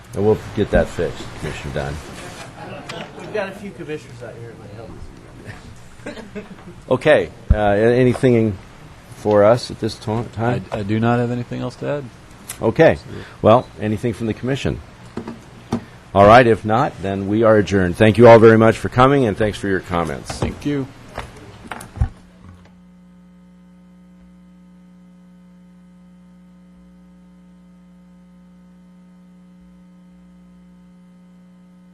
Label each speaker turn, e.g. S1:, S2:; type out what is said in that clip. S1: And we'll get that fixed, Commissioner Dunn.
S2: We've got a few commissioners out here that might help.
S1: Okay, uh, anything for us at this to-
S3: I,
S1: time?
S3: I do not have anything else to add.
S1: Okay, well, anything from the commission? All right, if not, then we are adjourned. Thank you all very much for coming, and thanks for your comments.
S3: Thank you.